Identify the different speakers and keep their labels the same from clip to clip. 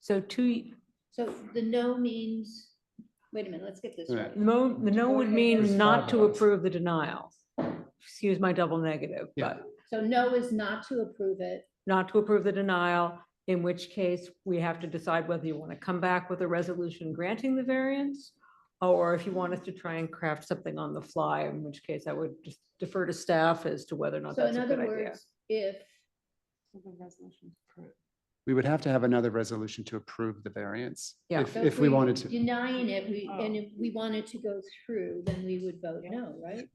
Speaker 1: So two,
Speaker 2: So the no means, wait a minute, let's get this right.
Speaker 1: the mo- the no would mean not to approve the denial. Excuse my double negative,
Speaker 3: Yeah.
Speaker 1: but
Speaker 2: So no is not to approve it.
Speaker 1: not to approve the denial, in which case we have to decide whether you want to come back with a resolution granting the variance or if you want us to try and craft something on the fly, in which case I would just defer to staff as to whether or not
Speaker 2: So
Speaker 1: that's
Speaker 2: in
Speaker 1: a
Speaker 2: other
Speaker 1: good idea.
Speaker 2: words, if,
Speaker 3: We would have to have another resolution to approve the variance.
Speaker 1: Yeah.
Speaker 3: If,
Speaker 2: so
Speaker 3: if we wanted to,
Speaker 2: Denying it, we,
Speaker 4: Oh.
Speaker 2: and if we wanted to go through, then we would vote no, right?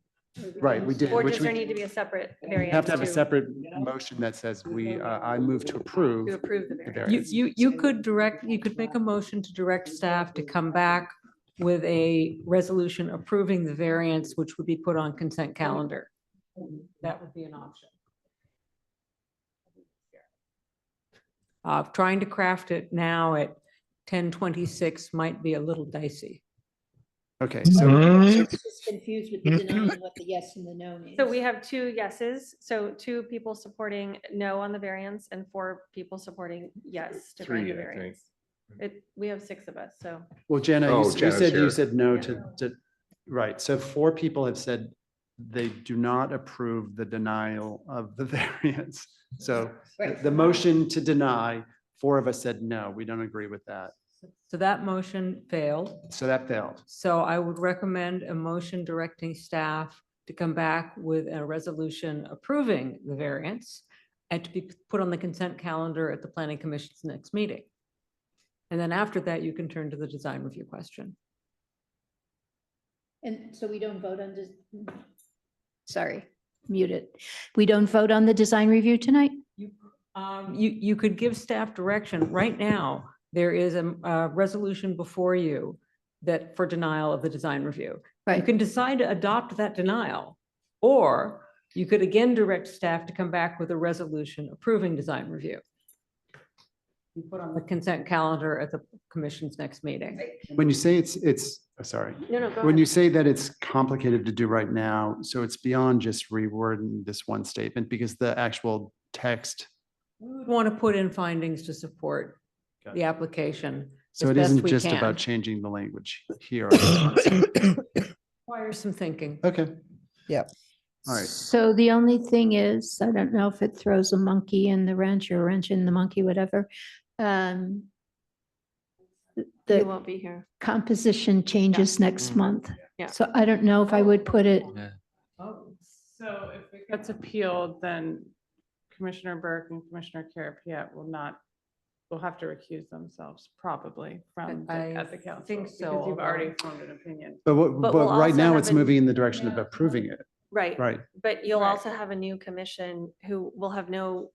Speaker 2: Or
Speaker 3: right,
Speaker 2: can
Speaker 3: we
Speaker 2: just-
Speaker 3: did.
Speaker 4: Or
Speaker 3: which
Speaker 4: does
Speaker 3: we-
Speaker 4: there need to be a separate
Speaker 3: we
Speaker 4: variance?
Speaker 3: Have to have a
Speaker 4: to-
Speaker 3: separate motion that says we, uh, I move to
Speaker 4: To
Speaker 3: approve
Speaker 4: approve the
Speaker 3: the
Speaker 4: variance.
Speaker 1: You,
Speaker 3: variance.
Speaker 1: you, you could direct, you could make a motion to direct staff to come back with a resolution approving the variance, which would be put on consent calendar. That would be an option. Uh, trying to craft it now at ten twenty-six might be a little dicey.
Speaker 3: Okay, so
Speaker 2: It's just Confused with the denying what the yes and the no means.
Speaker 4: So we have two yeses, so two people supporting no on the variance and four people supporting yes to grant
Speaker 5: Three,
Speaker 4: the
Speaker 5: I think.
Speaker 4: variance. It, we have six of us, so
Speaker 3: Well, Jana, you
Speaker 5: Oh,
Speaker 3: s- you
Speaker 5: Jana's
Speaker 3: said, you
Speaker 5: here.
Speaker 3: said no to, to, right, so four people have said they do not approve the denial of the variance. So the-
Speaker 2: Right.
Speaker 3: the motion to deny, four of us said, no, we don't agree with that.
Speaker 1: So that motion failed.
Speaker 3: So that failed.
Speaker 1: So I would recommend a motion directing staff to come back with a resolution approving the variance and to be put on the consent calendar at the planning commission's next meeting. And then after that, you can turn to the design review question.
Speaker 2: And so we don't vote on this. Sorry, mute it. We don't vote on the design review tonight?
Speaker 1: Um, you, you could give staff direction. Right now, there is a, a resolution before you that for denial of the design review. You
Speaker 2: Right.
Speaker 1: can decide to adopt that denial, or you could again direct staff to come back with a resolution approving design review. You put on the consent calendar at the commission's next meeting.
Speaker 3: When you say it's, it's, oh, sorry,
Speaker 4: no, no, go
Speaker 3: when you
Speaker 4: ahead.
Speaker 3: say that it's complicated to do right now, so it's beyond just rewording this one statement because the actual text,
Speaker 1: We would want to put in findings to support
Speaker 3: Got
Speaker 1: the application.
Speaker 3: so
Speaker 1: As
Speaker 3: it
Speaker 1: best
Speaker 3: isn't
Speaker 1: we
Speaker 3: just
Speaker 1: can.
Speaker 3: about changing the language here.
Speaker 1: Requires some thinking.
Speaker 3: Okay.
Speaker 6: Yep.
Speaker 3: All right.
Speaker 2: So the only thing is, I don't know if it throws a monkey in the wrench or a wrench in the monkey, whatever. um, th-
Speaker 4: You
Speaker 2: The
Speaker 4: won't be here.
Speaker 2: composition changes next
Speaker 3: Mm.
Speaker 2: month.
Speaker 4: Yeah.
Speaker 2: So I don't know if I would put it,
Speaker 7: So if it gets appealed, then Commissioner Burke and Commissioner Carapiet will not, will have to recuse themselves probably from, the-
Speaker 1: I
Speaker 7: at the council.
Speaker 1: think so,
Speaker 7: Because you've already
Speaker 1: although-
Speaker 7: formed an opinion.
Speaker 3: But what, but
Speaker 4: But we'll
Speaker 3: right
Speaker 4: also
Speaker 3: now
Speaker 4: have
Speaker 3: it's
Speaker 4: an-
Speaker 3: moving in the direction of approving it,
Speaker 4: Right,
Speaker 3: right?
Speaker 4: but you'll
Speaker 7: Right.
Speaker 4: also have a new commission who will have no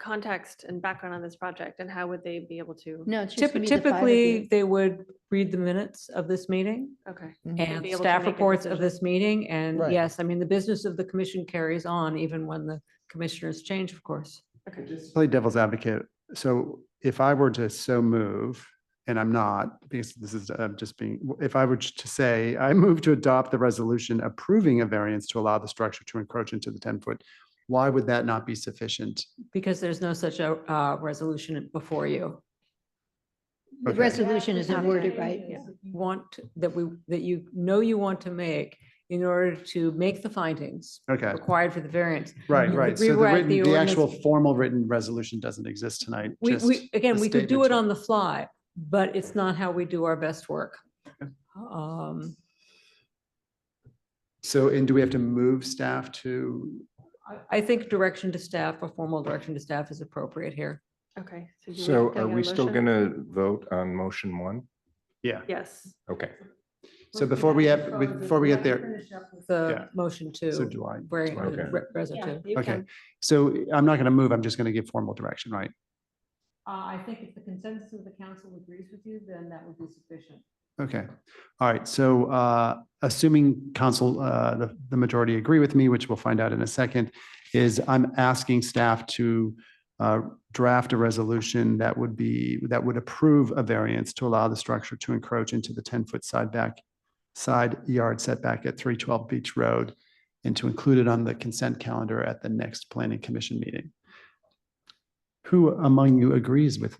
Speaker 4: context and background on this project, and how would they be able to?
Speaker 2: no, it's just
Speaker 1: Typ-
Speaker 2: gonna be the five of
Speaker 1: Typically,
Speaker 2: you.
Speaker 1: they would read the minutes of this meeting
Speaker 4: Okay.
Speaker 6: Mhm.
Speaker 1: and
Speaker 4: be able to
Speaker 1: staff
Speaker 4: make a
Speaker 1: reports of
Speaker 4: decision.
Speaker 1: this meeting. And
Speaker 6: Right.
Speaker 1: yes, I mean, the business of the commission carries on even when the commissioners change, of course.
Speaker 3: Just Play devil's advocate. So if I were to so move, and I'm not, because this is, i just being, if I were to say, I move to adopt the resolution approving a variance to allow the structure to encroach into the ten foot, why would that not be sufficient?
Speaker 1: Because there's no such a uh, resolution before you.
Speaker 2: The
Speaker 3: Okay.
Speaker 2: resolution isn't worded
Speaker 4: Yeah.
Speaker 2: right.
Speaker 4: Yeah.
Speaker 1: You Want to- that we, that you know you want to make in order to make the findings
Speaker 3: Okay,
Speaker 1: required for the variance.
Speaker 3: right,
Speaker 1: You
Speaker 3: right.
Speaker 1: could
Speaker 3: So the
Speaker 1: rewrite
Speaker 3: written,
Speaker 1: the
Speaker 3: the actual
Speaker 1: ordinance.
Speaker 3: formal written resolution doesn't exist tonight.
Speaker 1: We,
Speaker 3: just
Speaker 1: we, again,
Speaker 3: the
Speaker 1: we could do it
Speaker 3: statement.
Speaker 1: on the fly, but it's not how we do our best work.
Speaker 3: Okay.
Speaker 1: Um,
Speaker 3: So, and do we have to move staff to,
Speaker 1: I- I think direction to staff, a formal direction to staff is appropriate here.
Speaker 4: Okay. do we
Speaker 5: So
Speaker 4: have to
Speaker 5: are
Speaker 4: get a
Speaker 5: we still
Speaker 4: motion?
Speaker 5: gonna vote on motion one?
Speaker 3: yeah.
Speaker 4: Yes.
Speaker 5: Okay.
Speaker 3: So before we have, before we get there,
Speaker 1: The
Speaker 3: Yeah.
Speaker 1: motion
Speaker 3: so
Speaker 1: to
Speaker 3: do I.
Speaker 1: bring
Speaker 5: Okay.
Speaker 1: re- residue.
Speaker 4: Yeah, you
Speaker 3: Okay,
Speaker 4: can.
Speaker 3: so I'm not going to move. I'm just going to give formal direction, right?
Speaker 1: Uh, I think if the consensus of the council agrees with you, then that would be sufficient.
Speaker 3: Okay. All right. So uh, assuming council, uh, the, the majority agree with me, which we'll find out in a second, is I'm asking staff to uh, draft a resolution that would be, that would approve a variance to allow the structure to encroach into the 10-foot side back, side yard setback at 312 Beach Road and to include it on the consent calendar at the next planning commission meeting. Who among you agrees with